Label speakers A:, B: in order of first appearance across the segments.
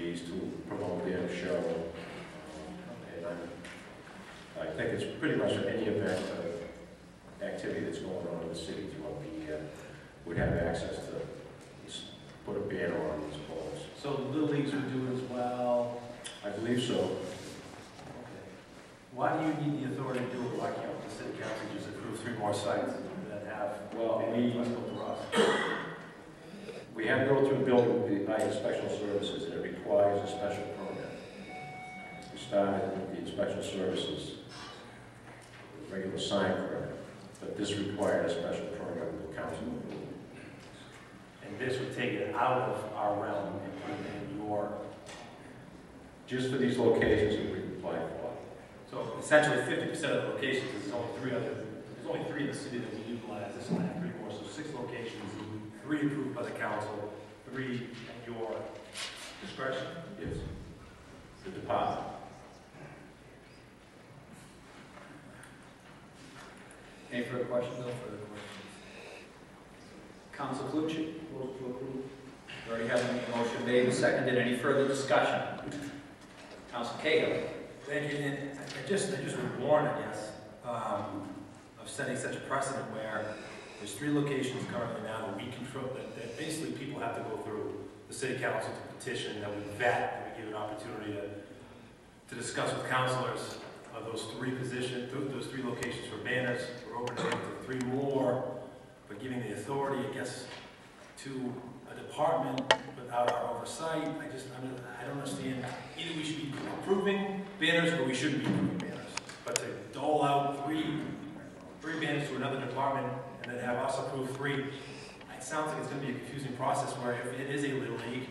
A: activities to promote their show. And I, I think it's pretty much any event, uh, activity that's going on in the city throughout the year uh, would have access to, s- put a banner on these poles.
B: So the Little Leagues would do it as well.
A: I believe so.
B: Okay. Why do you need the authority to do it? Why can't the city council just approve three more sites that have?
A: Well, we-
B: we.
A: We have to go through building, the inspection services, and it requires a special permit. We started with the inspection services, the regular sign permit, but this required a special permit with the council.
B: And this would take it out of our realm and put it in your,
A: Just for these locations that we applied for.
C: So essentially fifty percent of the locations, 'cause there's only three other, there's only three in the city that we utilize, this one had three more, so six locations, three approved by the council, three at your discretion.
A: Yes. The department.
D: Any further questions? No further questions. Council Calucci? Vote to approve. We already have a motion made and seconded. Any further discussion? Council Cahill?
C: Thank you, and I- I just, I just would warn, I guess, um, of setting such a precedent where there's three locations currently now that we control, that, that basically people have to go through the city council to petition, that we vet, that we give an opportunity to, to discuss with councilors of those three positions, those three locations for banners, we're opening it to three more, but giving the authority, I guess, to a department without our oversight, I just, I mean, I don't understand, either we should be approving banners, but we shouldn't be doing banners. But to dole out three, three banners to another department and then have us approve three, it sounds like it's gonna be a confusing process where if it is a little league,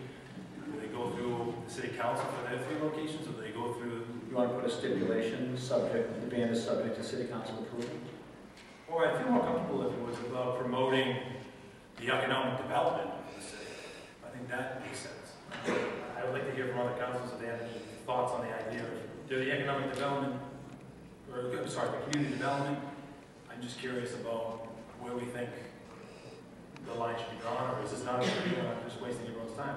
C: do they go through the city council for their three locations, or do they go through,
D: You want to put a stipulation, subject, the ban is subject to city council approval?
C: or I feel more comfortable if it was about promoting the economic development of the city. I think that makes sense. I would like to hear from other councils if they have any thoughts on the idea of, do the economic development, or, I'm sorry, the community development, I'm just curious about where we think the line should be drawn, or is this not, a I'm just wasting everyone's time?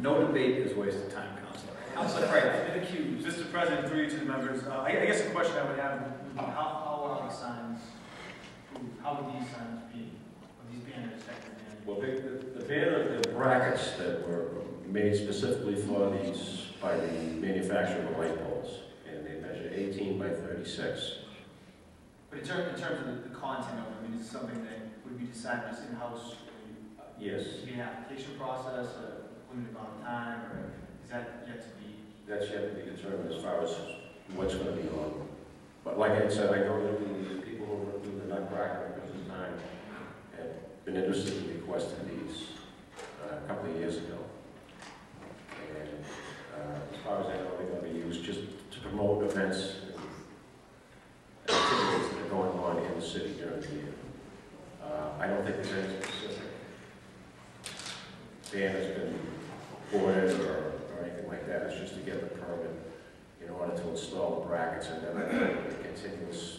D: No debate is a waste of time, Councilor. Councilor Craig?
E: Been accused. Mr. President, through you to the members, uh, I I guess the question I would have, would be how, how are the signs, how would these signs be, or these banners affected?
A: Well, the, the banner, the brackets that were made specifically for these by the manufacturer of the light poles, and they measure eighteen by thirty-six.
E: But in terms, in terms of the- the content of it, I mean, it's something that would be decided as in-house, would
A: Yes.
E: be an application process, a limited amount of time, or is that yet to be?
A: That's yet to be determined as far as what's gonna be on. them. But like I said, I know that the people who were doing the nutcracker at this time have been interested in requesting these uh, a couple of years ago. And uh, as far as I know, they're gonna be used just to promote events and activities that are going on in the city during the year. Uh, I don't think there's any specific ban has been ordered or, or anything like that, it's just to get the permit in order to install the brackets and then a continuous,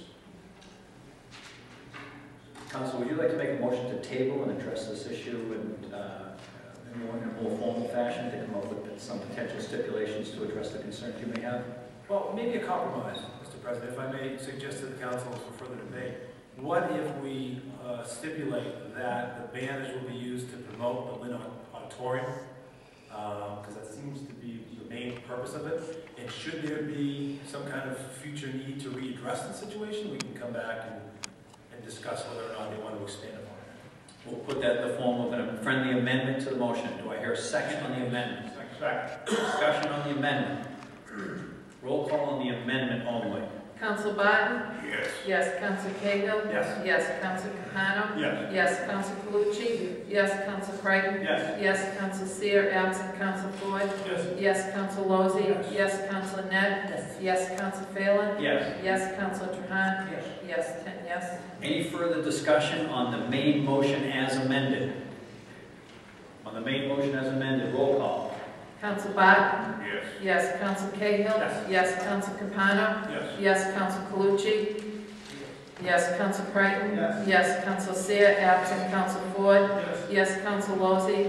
D: Council, would you like to make a motion to table and address this issue and, uh, in more- in a more formal fashion, to come up with some potential stipulations to address the concerns you may have?
C: Well, maybe a compromise, Mr. President, if I may suggest to the council for further debate. What if we uh, stipulate that the banners will be used to promote the Lynn Auditorium? Because that seems to be the main purpose of it. And should there be some kind of future need to readdress the situation, we can come back and, and discuss whether or not they want to expand upon it.
D: We'll put that in the form of a friendly amendment to the motion. Do I hear a second on the amendment? Discussion on the amendment. Roll call on the amendment only.
F: Council Barton?
C: Yes.
F: Yes. Council Cahill?
C: Yes.
F: Yes. Council Capano?
C: Yes.
F: Yes. Council Calucci? Yes. Council Creighton?
E: Yes.
F: Yes. Council Seer, absent Council Floyd?
C: Yes.
F: Yes. Council Lozey?
C: Yes.
F: Yes. Council Net? Yes. Yes. Council Phelan?
D: Yes.
F: Yes. Council Trahan?
C: Yes.
F: Yes. Ten yes.
D: Any further discussion on the main motion as amended? On the main motion as amended, roll call.
F: Council Barton?
C: Yes.
F: Yes. Council Cahill?
C: Yes.
F: Yes. Council Capano?
C: Yes.
F: Yes. Council Calucci? Yes. Council Creighton?
E: Yes.
F: Yes. Council Seer, absent Council Floyd?
C: Yes.
F: Yes. Council Lozey?